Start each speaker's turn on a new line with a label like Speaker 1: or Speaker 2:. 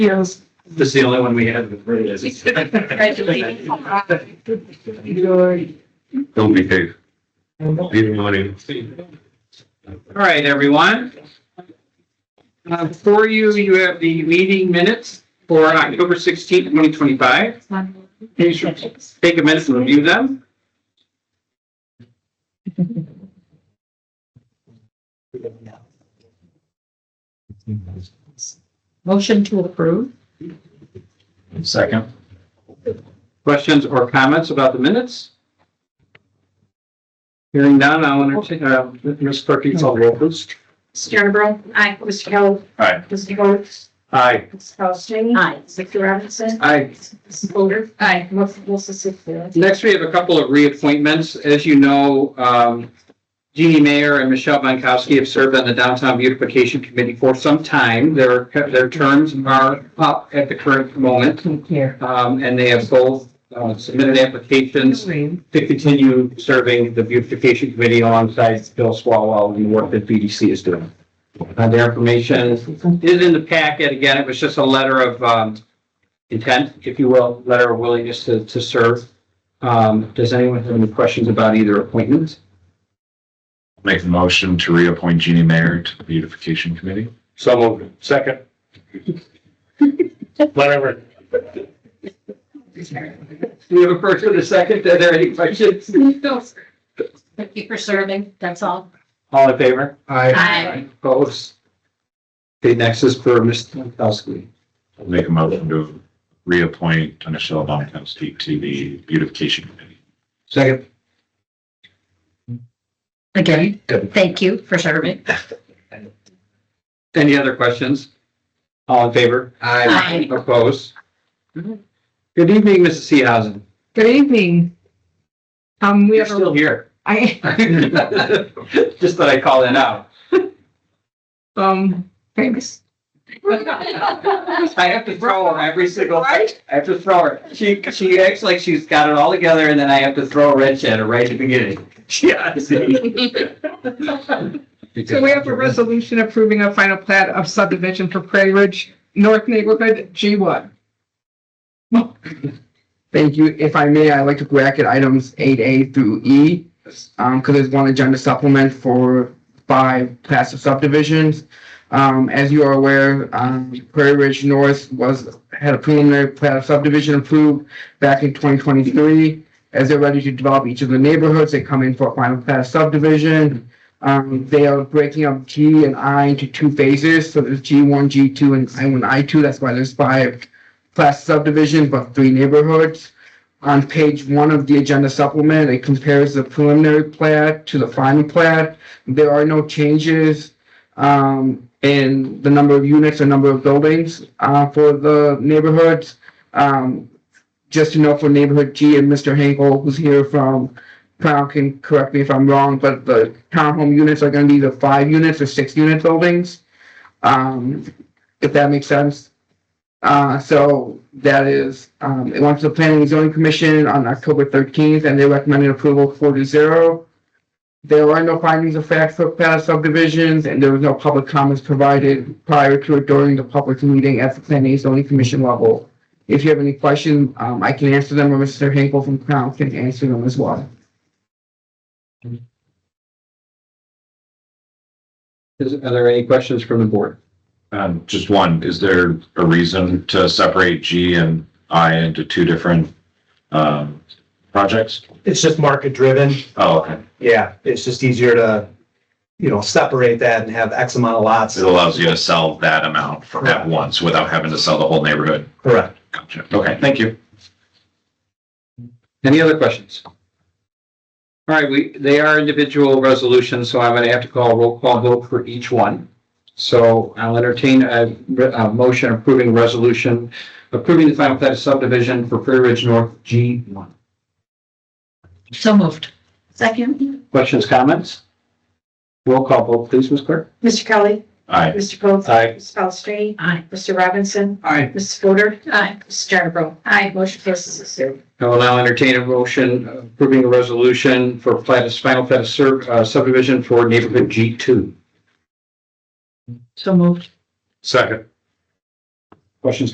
Speaker 1: Yes.
Speaker 2: This is the only one we had with Reyes.
Speaker 1: Congratulations.
Speaker 3: Don't behave.
Speaker 1: All
Speaker 3: Leave the money.
Speaker 1: right, everyone. Uh, Before you, you have the meeting minutes for October 16th, 2025. Can you sure Take a minute and review them.
Speaker 4: Motion to approve?
Speaker 2: Second.
Speaker 1: Questions or comments about the minutes? Hearing none, I'll entertain, uh, Ms. Clerk, you call the roll, please.
Speaker 5: Mr. Jernerbro? Aye. Mr. Kelly?
Speaker 2: Aye.
Speaker 5: Mr. Coates?
Speaker 1: Aye.
Speaker 5: Mr. Paulson?
Speaker 4: Aye.
Speaker 5: Mr. Robinson?
Speaker 1: Aye.
Speaker 5: Mrs. Fodor? Aye. Mrs. Wilson Sipfield?
Speaker 1: Next, we have a couple of reappointments. As you know, um, Jeannie Mayer and Michelle Bonkowski have served on the Downtown Beautification Committee for some time. Their, their terms are up at the current moment,
Speaker 4: Here.
Speaker 1: um, and they have both uh, submitted applications
Speaker 4: Room.
Speaker 1: to continue serving the beautification committee alongside Bill Swalwell and the work that BDC is doing. Uh, their information is in the packet. Again, it was just a letter of, um, intent, if you will, letter of willingness to, to serve. Um, does anyone have any questions about either appointment?
Speaker 3: Make a motion to reappoint Jeannie Mayer to the beautification committee.
Speaker 2: So moved. Second. Whatever.
Speaker 1: Do we have a first and a second? Are there any questions?
Speaker 4: Thank you for serving, that's all.
Speaker 1: All in favor?
Speaker 4: Aye.
Speaker 1: Opposed? Okay, next is for Mr. Pankowski.
Speaker 3: Make a motion to reappoint Michelle Bonkowski to the beautification committee.
Speaker 1: Second.
Speaker 4: Again, thank you for serving.
Speaker 1: Any other questions? All in favor?
Speaker 4: Aye. Mm-hmm.
Speaker 1: Opposed? Good evening, Mrs. Seehausen.
Speaker 6: Good evening. Um, we
Speaker 1: You're
Speaker 6: have, a-
Speaker 1: still here.
Speaker 6: I,
Speaker 1: Just that I call in out.
Speaker 6: um, famous.
Speaker 1: I have to throw her every single, I have to throw her. She, she acts like she's got it all together and then I have to throw a wrench at her right at the beginning. Yeah.
Speaker 6: So we have a resolution approving a final plat of subdivision for Prairie Ridge North Neighborhood G one.
Speaker 7: Thank you. If I may, I'd like to bracket items eight A through E, um, because there's one agenda supplement for five class of subdivisions. Um, as you are aware, um, Prairie Ridge North was, had a preliminary plat of subdivision approved back in twenty twenty-three. As they're ready to develop each of the neighborhoods, they come in for a final plat of subdivision. Um, they are breaking up G and I into two phases, so there's G one, G two, and I one, I two. That's why there's five class subdivision, but three neighborhoods. On page one of the agenda supplement, it compares the preliminary plat to the final plat. There are no changes um, in the number of units or number of buildings uh, for the neighborhoods. Um, Just to note for neighborhood G and Mr. Hankel, who's here from Crown, can correct me if I'm wrong, but the townhome units are gonna be the five units or six unit buildings. Um, If that makes sense. Uh, so that is, um, it went to the Planning and Zoning Commission on October thirteenth, and they recommended approval four to zero. There are no findings of fact for past subdivisions, and there was no public comments provided prior to or during the public meeting at the Planning and Zoning Commission level. If you have any questions, um, I can answer them, or Mr. Hinkle from Crown can answer them as well.
Speaker 1: Is, are there any questions from the board?
Speaker 3: Um, just one, is there a reason to separate G and I into two different, um, projects?
Speaker 8: it's just market driven.
Speaker 3: Oh, okay.
Speaker 8: Yeah, it's just easier to, you know, separate that and have X amount of lots.
Speaker 3: It allows you to sell that amount for- at once without having to sell the whole neighborhood.
Speaker 8: Correct.
Speaker 3: Gotcha. Okay, thank you.
Speaker 1: Any other questions? All right, we, they are individual resolutions, so I'm going to have to call a roll call vote for each one. So I'll entertain a, re- a motion approving resolution, approving the final plat of subdivision for Prairie Ridge North G1.
Speaker 4: So moved.
Speaker 5: Second.
Speaker 1: Questions, comments? Roll call vote, please, Ms. Clerk.
Speaker 5: Mr. Kelly?
Speaker 3: Aye.
Speaker 5: Mr. Coates?
Speaker 1: Aye.
Speaker 5: Mrs. Palastrellini?
Speaker 4: Aye.
Speaker 5: Mr. Robinson?
Speaker 1: Aye.
Speaker 5: Mrs. Fodor?
Speaker 4: Aye.
Speaker 5: Mr. Jernerbro? Aye. Motion passes six zero.
Speaker 1: I will now entertain a motion approving a resolution for plat, final plat of sur- uh, subdivision for neighborhood G2.
Speaker 4: So moved.
Speaker 3: Second.
Speaker 1: Questions,